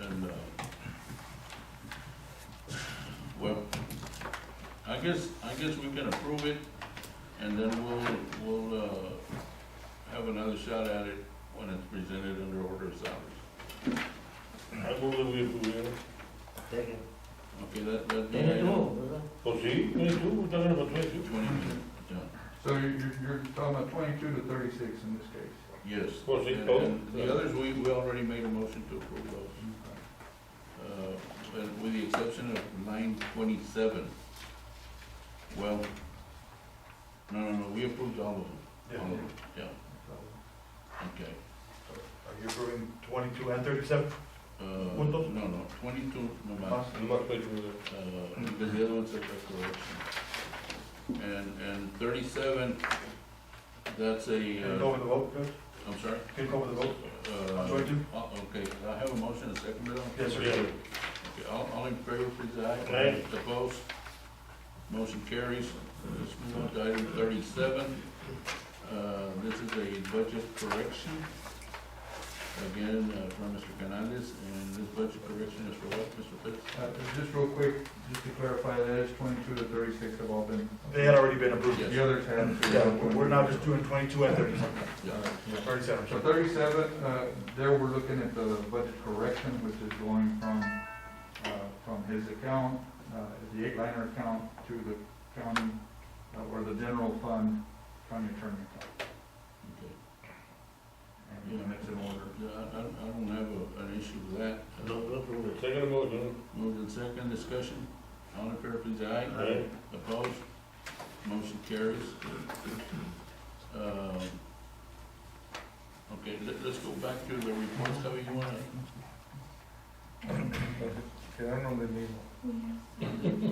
And, uh, well, I guess, I guess we can approve it, and then we'll, we'll, uh, have another shot at it when it's presented under order of salaries. I move that we approve it. Second. Okay, that, that'd be item Twenty-two, brother. Oh, see, twenty-two, we're talking about twenty-two. twenty-two, John. So you're, you're- you're talking about twenty-two to thirty-six in this case? Yes. Well, they And- both- and The others, we, we already made a motion to approve those. Uh, and with the exception of nine twenty-seven. Well, no, no, no, we approved all of them. All of them, yeah, okay. Are you approving twenty-two and thirty-seven? Uh, Uh, Punto. no, no, twenty-two, no matter, I'm not quite sure that. uh, because the other one's a correction. And, and thirty-seven, that's Can you a, go uh, over the vote, Chris? I'm sorry, Can you go over the vote? uh, Twenty-two? uh, okay, I have a motion, a second, Bill? Yeah. Yes, sir. Okay, all, all in favor, please, aye. Aye. Opposed? Motion carries. Let's move on to item thirty-seven. Uh, this is a budget correction. Again, uh, from Mr. Canales, and this budget correction is for what, Mr. Pitts? Uh, just real quick, just to clarify, that is twenty-two to thirty-six have all been. They had already been approved. Yes. The others And, haven't. so yeah, we're- we're now just doing twenty-two and thirty-seven. Yeah. Thirty-seven, So sorry. thirty-seven, uh, there we're looking at the budget correction, which is going from, uh, from his account, uh, the eight-liner account to the county, uh, or the general fund, county attorney account. Okay. And and it's in order. Yeah, I, I don't- I don't have a, an issue with that. No, no, approve it. Second motion. Moved in second, discussion. All in favor, please, aye. Aye. Opposed? Motion carries. Um, Okay, let, let's go back to the reports, how you wanna, Quedaron del mismo,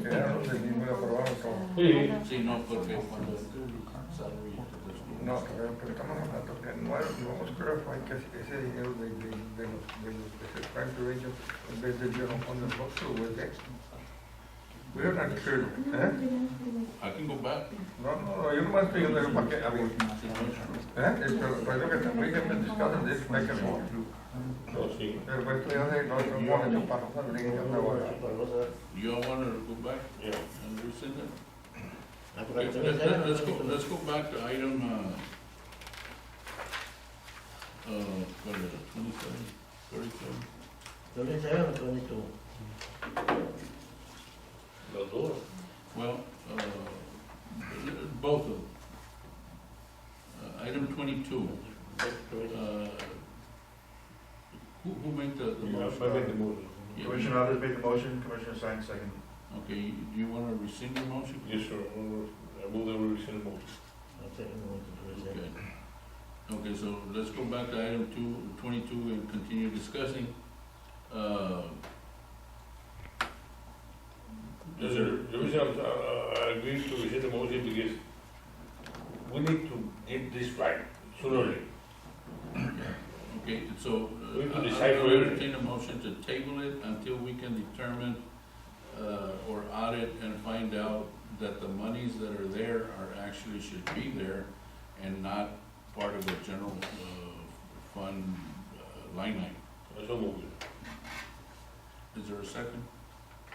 Quedaron del mismo y aprobaron todo. Sí. sí, no, porque cuando el salary. let's No, go. pero pero estamos hablando que no, es- no hemos clarificado que si ese dinero de, de, de los, de los que se pagan de ellos, en vez de llevar on the box o el extra. We are not clear, ¿eh? I can go back. No, no, no, yo nomás estoy diciendo para que, a ver, ¿eh? Esto, pues lo que también que me discutan de eso, hay que no. Oh, sí. Pero pues esto ya de los otros monos, para los gringos, para ahora. You all wanna go back Yeah. and rescind it? I forgot Okay, to- let- let- Let's go, let's go back to item, uh, uh, what is it, twenty-seven, thirty-seven? Twenty-seven or twenty-two? Los dos. Well, uh, both of them. Uh, Item twenty-two, uh, who, who made the, the Yeah, motion? I make the motion. Yeah, Commissioner Alves made the motion, Commissioner Sines second. Okay, you- do you wanna rescind your motion? Yes, sir. I move that we rescind the motion. I'll take a motion to rescind. Okay. Okay, so let's go back to item two, twenty-two and continue discussing. Uh, The the reason I'm, I- I agree to rescind the motion because we need to get this right sooner or later. Okay, so We uh, can I- decide I will whether- entertain a motion to table it until we can determine uh, or audit and find out that the monies that are there are actually should be there and not part of a general uh, fund uh, line item. That's all moving. Is there a second?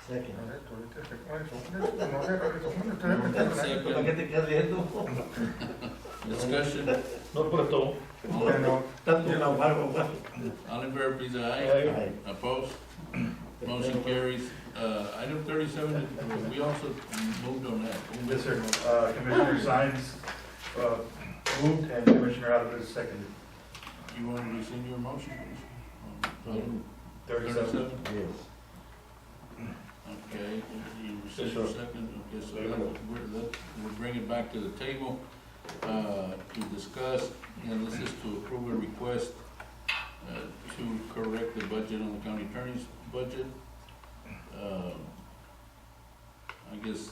Second. Correcto, ahorita se pone, son estos, no, pero estos son ustedes que están ahí. ¿Para qué Second, te quedas riendo? discussion. No, por esto. All in- Bueno, Tanto una barba, güey. All in favor, please, aye. Aye. Opposed? Motion carries. Uh, Item thirty-seven, we also moved on that. Yes, sir. Uh, Commissioner Sines, uh, moved and Commissioner Alves seconded. You want to rescind your motion, please? Um, On item Thirty-seven. Yes. Okay, you rescind Yes, your sir. second, okay, so Very that, well. we're, that, we'll bring it back to the table, uh, to discuss, and this is to approve a request, uh, to correct the budget on the county attorney's budget. Um, I guess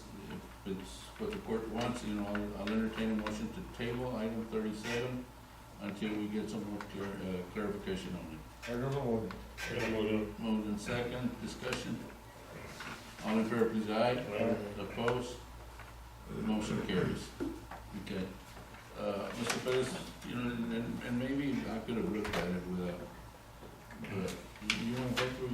if it's what the court wants, you know, I'll- I'll entertain a motion to table item thirty-seven until we get some more clar- uh, clarification on it. I don't know. Second motion. Moved in second, discussion. All in favor, please, aye. Aye. Opposed? Motion carries. Okay. Uh, Mr. Perez, you know, and, and maybe I could have looked at it without, but you- you want to go through